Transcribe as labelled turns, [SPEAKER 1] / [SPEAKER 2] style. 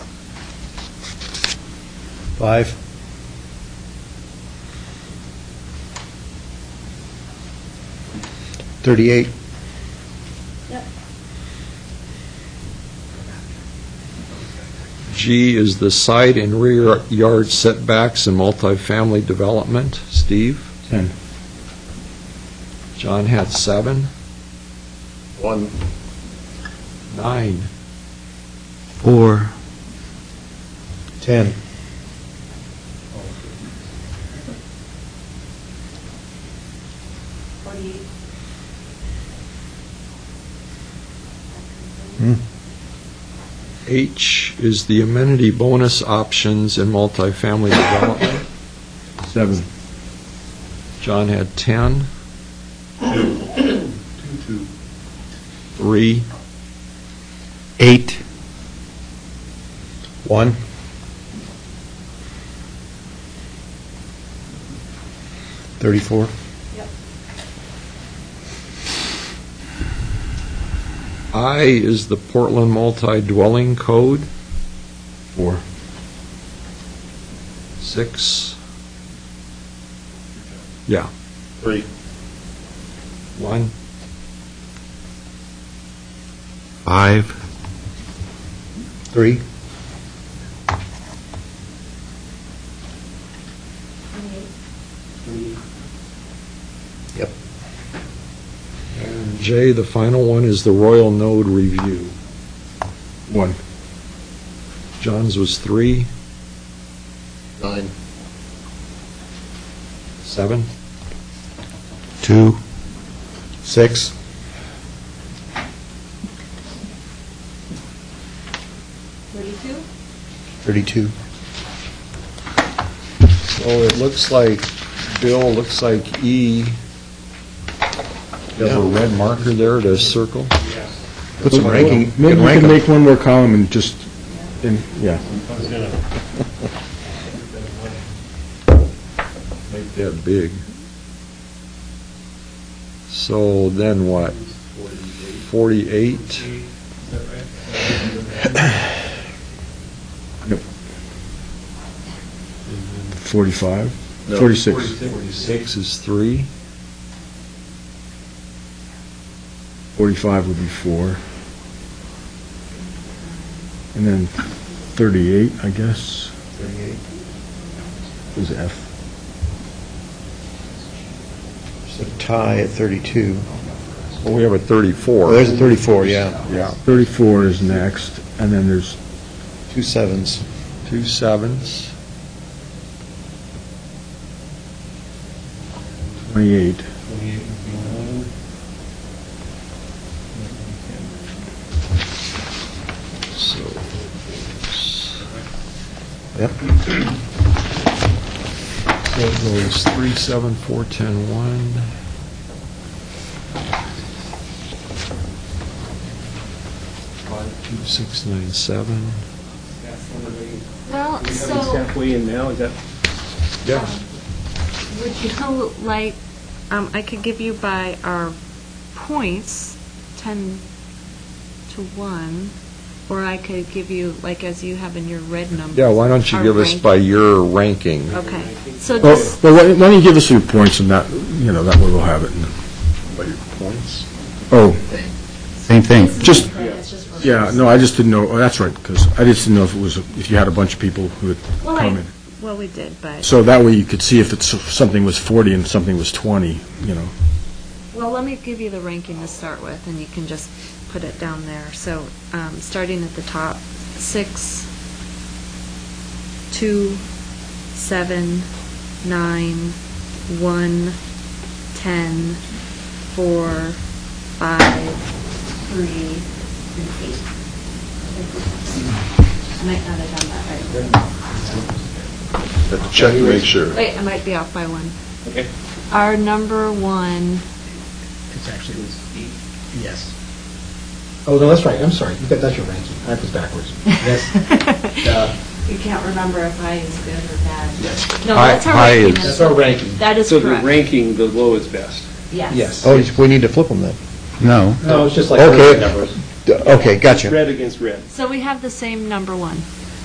[SPEAKER 1] Five? Thirty-eight?
[SPEAKER 2] Yep.
[SPEAKER 3] G is the side and rear yard setbacks in multifamily development. Steve?
[SPEAKER 1] Ten.
[SPEAKER 3] John had seven.
[SPEAKER 4] One,
[SPEAKER 3] Nine.
[SPEAKER 5] Four.
[SPEAKER 1] Ten.
[SPEAKER 2] Forty-eight.
[SPEAKER 6] Hmm.
[SPEAKER 3] H is the amenity bonus options in multifamily development.
[SPEAKER 1] Seven.
[SPEAKER 3] John had 10.
[SPEAKER 4] two, two,
[SPEAKER 3] Three.
[SPEAKER 5] Eight.
[SPEAKER 1] One? Thirty-four?
[SPEAKER 2] Yep.
[SPEAKER 3] I is the Portland multi-dwelling code.
[SPEAKER 1] Four.
[SPEAKER 3] Six.
[SPEAKER 4] three,
[SPEAKER 3] One.
[SPEAKER 5] Five.
[SPEAKER 1] Three?
[SPEAKER 2] Twenty-eight.
[SPEAKER 1] Yep.
[SPEAKER 3] And J, the final one, is the Royal Node Review.
[SPEAKER 1] One.
[SPEAKER 3] John's was three,
[SPEAKER 4] nine,
[SPEAKER 3] seven,
[SPEAKER 5] Two.
[SPEAKER 1] Six?
[SPEAKER 2] Thirty-two.
[SPEAKER 1] Thirty-two?
[SPEAKER 3] So Oh, it looks like, Bill, looks like E, you have a red marker there to circle?
[SPEAKER 1] Put some ranking, you
[SPEAKER 6] Maybe
[SPEAKER 1] can
[SPEAKER 6] we
[SPEAKER 1] rank
[SPEAKER 6] can
[SPEAKER 1] 'em.
[SPEAKER 6] make one more column and just, and, yeah.
[SPEAKER 3] Make that big. So then what? Forty-eight?
[SPEAKER 6] Yep. 45,
[SPEAKER 4] No.
[SPEAKER 6] 46,
[SPEAKER 3] Forty-six is three,
[SPEAKER 6] 45 would be four. And then 38, I guess,
[SPEAKER 1] Thirty-eight.
[SPEAKER 6] is F.
[SPEAKER 1] It's a tie at thirty-two.
[SPEAKER 3] well, we have a thirty-four.
[SPEAKER 1] Oh, there's a thirty-four, yeah.
[SPEAKER 3] Yeah,
[SPEAKER 6] 34 is next, and then there's,
[SPEAKER 1] Two sevens.
[SPEAKER 3] two sevens,
[SPEAKER 6] 28,
[SPEAKER 3] so.
[SPEAKER 1] Yep.
[SPEAKER 3] So it goes three, seven, four, ten, one. Five, two, six, nine, seven.
[SPEAKER 7] Well, so. um,
[SPEAKER 3] Yeah.
[SPEAKER 7] Would you like, um, I could give you by our points, 10 to 1, or I could give you, like, as you have in your red numbers.
[SPEAKER 3] Yeah, why don't you
[SPEAKER 7] our
[SPEAKER 3] give us by
[SPEAKER 7] ranking.
[SPEAKER 3] your ranking?
[SPEAKER 7] Okay, so
[SPEAKER 6] well,
[SPEAKER 7] just,
[SPEAKER 6] well, why why don't you give us your points and that, you know, that way we'll have it.
[SPEAKER 4] by your points.
[SPEAKER 6] Oh,
[SPEAKER 5] Same thing.
[SPEAKER 6] just,
[SPEAKER 2] It's just for-
[SPEAKER 6] yeah, no, I just didn't know, oh, that's right, because I just didn't know if it was, if you had a bunch of people who had
[SPEAKER 7] Well, I-
[SPEAKER 6] come in.
[SPEAKER 7] well, we did, but,
[SPEAKER 6] So that way you could see if it's, if something was 40 and something was 20, you know.
[SPEAKER 7] well, let me give you the ranking to start with, and you can just put it down there. So, um, starting at the top, 6, 2, 7, 9, 1, 10, 4, 5, 3, and 8. I might not have done that right.
[SPEAKER 4] Have to check to make sure.
[SPEAKER 7] Wait, I might be off by one. Okay. Our number one
[SPEAKER 8] It's actually was eight, yes. Oh, no, that's right, I'm sorry, You got- that's your ranking, I was backwards. Yes, uh,
[SPEAKER 7] You can't remember if I is good or bad.
[SPEAKER 8] yes,
[SPEAKER 7] No,
[SPEAKER 3] Hi-
[SPEAKER 7] that's our
[SPEAKER 3] hi
[SPEAKER 7] ranking.
[SPEAKER 3] is-
[SPEAKER 8] that's our ranking.
[SPEAKER 7] That is
[SPEAKER 9] So the
[SPEAKER 7] correct.
[SPEAKER 9] ranking, the low is best.
[SPEAKER 7] Yes.
[SPEAKER 8] Yes.
[SPEAKER 1] Oh, we need to flip them then.
[SPEAKER 5] No.
[SPEAKER 8] No, it's just like
[SPEAKER 1] Okay.
[SPEAKER 8] numbers.
[SPEAKER 1] D- Okay, gotcha.
[SPEAKER 9] Red against red.
[SPEAKER 7] So we have the same number one.